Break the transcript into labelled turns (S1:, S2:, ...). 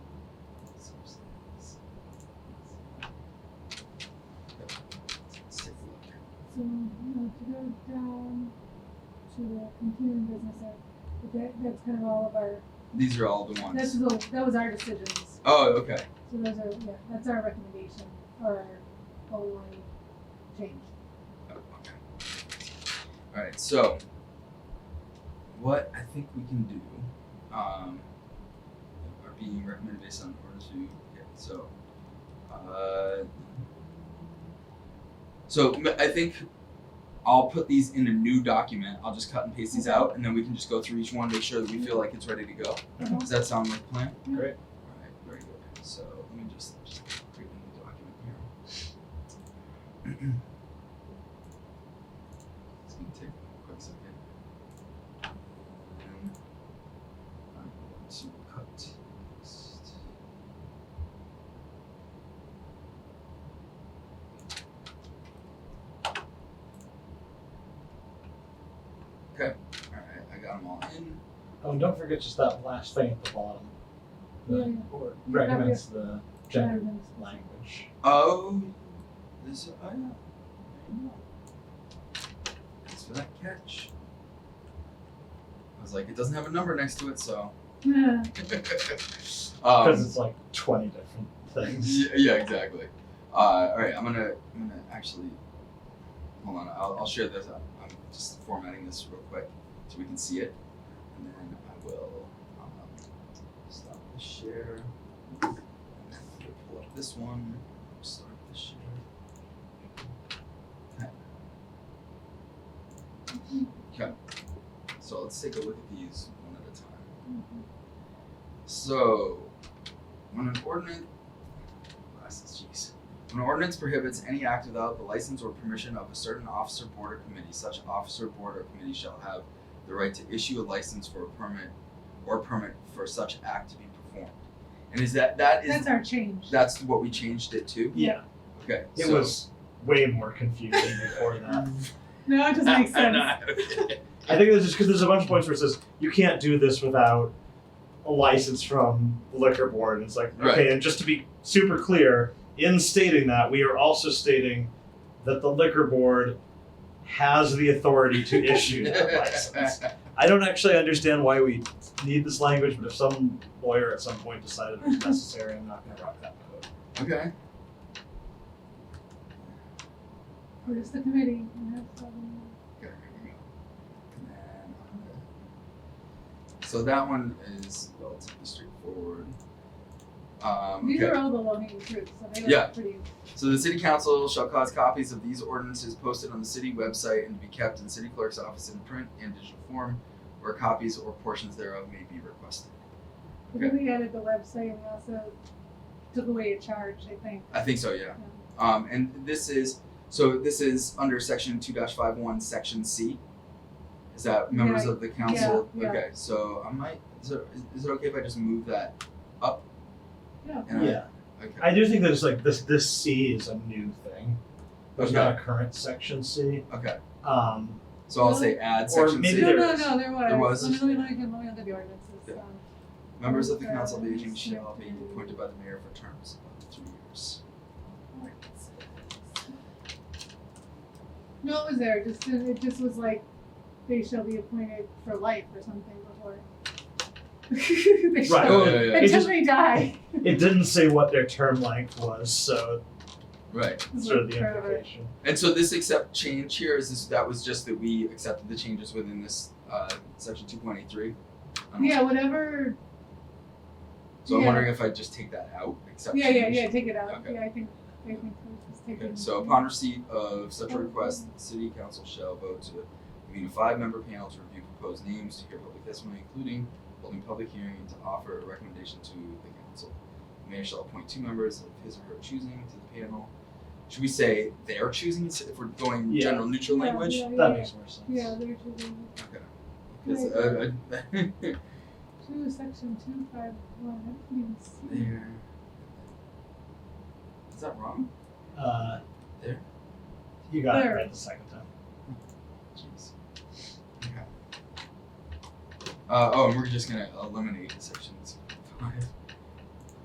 S1: So, you know, if you go down to the continuing business, that, but that, that's kind of all of our,
S2: These are all the
S1: that's
S2: ones.
S1: the, that was our decisions.
S2: Oh, okay.
S1: So those are, yeah, that's our recommendation, or our goal line change.
S2: Oh, okay. All right. So, what I think we can do um, are being recommended based on the orders we get. So, uh, so m- I think I'll put these in a new document. I'll just cut and paste these
S1: Okay.
S2: out, and then we can just go through each one, make sure that we feel like it's ready to go.
S1: Uh-huh.
S2: Does that sound like a plan?
S1: Yeah.
S3: Great.
S2: All right, very good. So let me just, just create a new document here. It's gonna take a quick second. And I'm going to cut paste. Okay, all right, I got them all in.
S3: Oh, and don't forget just that last thing at the bottom. The
S1: Yeah, yeah.
S3: board recommends the
S1: Rather
S3: gender
S1: than-
S3: language.
S2: Oh, this oh yeah. There you go. Thanks for that catch. I was like, it doesn't have a number next to it, so.
S1: Yeah,
S2: um,
S3: Because it's like 20 different things.
S2: yeah, yeah, exactly. Uh, all right, I'm gonna, I'm gonna actually. Hold on, I'll, I'll share this. I'm, I'm just formatting this real quick so we can see it, and then I will um, stop the share. And then we'll pull up this one. Start the share. Okay. So let's take a look at these one at a time. So, when an ordinance, glasses, jeez. When an ordinance prohibits any act without the license or permission of a certain officer, board, or committee, such officer, board, or committee shall have the right to issue a license for a permit or permit for such act to be performed. And is that that is
S1: that's our change.
S2: that's what we changed it to?
S3: Yeah,
S2: Okay.
S3: it
S2: so-
S3: was way more confusing before that.
S1: No, it doesn't make sense.
S3: I think that's just because there's a bunch of points where it says you can't do this without a license from the liquor board. And it's like, okay,
S2: Right.
S3: and just to be super clear, in stating that, we are also stating that the liquor board has the authority to issue that license. I don't actually understand why we need this language, but if some lawyer at some point decided it was necessary, I'm not going to rock that boat.
S2: okay.
S1: Where's the committee? And that's all we-
S2: Okay, here we go. And then, okay. So that one is relatively straightforward. Um,
S1: These
S2: okay.
S1: are all the low-hanging fruits, so they
S2: Yeah.
S1: look pretty.
S2: So the city council shall cause copies of these ordinances posted on the city website and to be kept in city clerk's office in print and digital form, where copies or portions theref may be requested.
S1: I think we added the website and we also took away a charge, I think.
S2: I think so, yeah.
S1: Um,
S2: Um, and this is so this is under section two dash five one, section C. Is that members
S1: Yeah,
S2: of the council?
S1: yeah.
S2: Okay, so I might is it, is it okay if I just move that up?
S1: Yeah.
S2: And I-
S3: Yeah.
S2: Okay.
S3: I do think there's like this, this C is a new thing. There's not a current section C.
S2: Okay.
S3: Um,
S2: So I'll say add
S3: Or
S2: section
S3: maybe
S2: C.
S1: No,
S3: there
S1: no,
S3: is.
S1: no, there was.
S2: There was.
S1: Let me, let me, let me, let me look at the ordinances.
S2: Yeah.
S1: um,
S2: Members of the council of aging shall be appointed by the mayor for terms of three years.
S1: No, it was there, just, it just was like, they shall be appointed for life or something before. They shall-
S3: Right. Oh,
S2: yeah,
S3: It
S1: Until
S3: just-
S1: they die.
S3: it didn't say what their term length was, so
S2: Right.
S3: that's
S1: is
S3: sort
S1: what
S3: of the
S1: forever.
S3: implication.
S2: And so this accept change here is this that was just that we accepted the changes within this uh, section two point eight three.
S1: Yeah, whatever,
S2: So I'm
S1: yeah.
S2: wondering if I just take that out, accept
S1: yeah, yeah,
S2: change.
S1: yeah, take it out,
S2: Okay.
S1: yeah, I think, I think we'll just take it.
S2: Okay, so upon receipt of such a request, the city council shall vote to convene a five-member panel to review proposed names, to hear public testimony, including holding public hearing, and to offer a recommendation to the council. The mayor shall appoint two members of his or her choosing to the panel. Should we say their choosing, s- if we're going
S3: Yeah.
S2: general neutral
S1: Yeah,
S2: language?
S1: yeah,
S3: That
S1: yeah.
S3: makes more sense.
S1: Yeah, there's, there's,
S2: Okay. 'Cause, uh, I-
S1: two, section two, five, one, I didn't even see.
S2: there. Is that wrong?
S3: Uh,
S2: There.
S3: You got
S1: There.
S3: it right the second time.
S2: Jeez. Okay. Uh, oh, and we're just gonna eliminate sections five